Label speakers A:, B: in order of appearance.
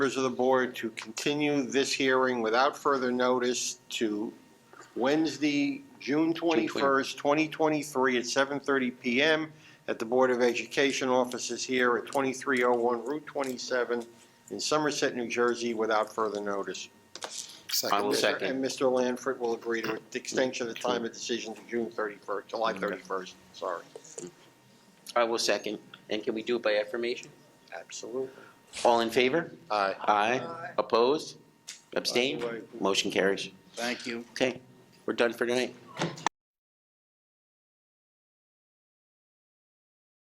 A: members of the board to continue this hearing without further notice to Wednesday, June 21st, 2023, at 7:30 PM at the Board of Education offices here at 2301 Route 27 in Somerset, New Jersey, without further notice.
B: I will
A: Mr.
B: second.
A: And Mr. Lanford will agree to the extension of the time of decision to June 31st, July 31st, sorry.
B: I will second. And can we do it by affirmation?
A: Absolutely.
B: All in favor?
A: Aye.
B: Aye. Opposed? Abstained? Motion carries.
C: Thank you.
B: Okay, we're done for tonight.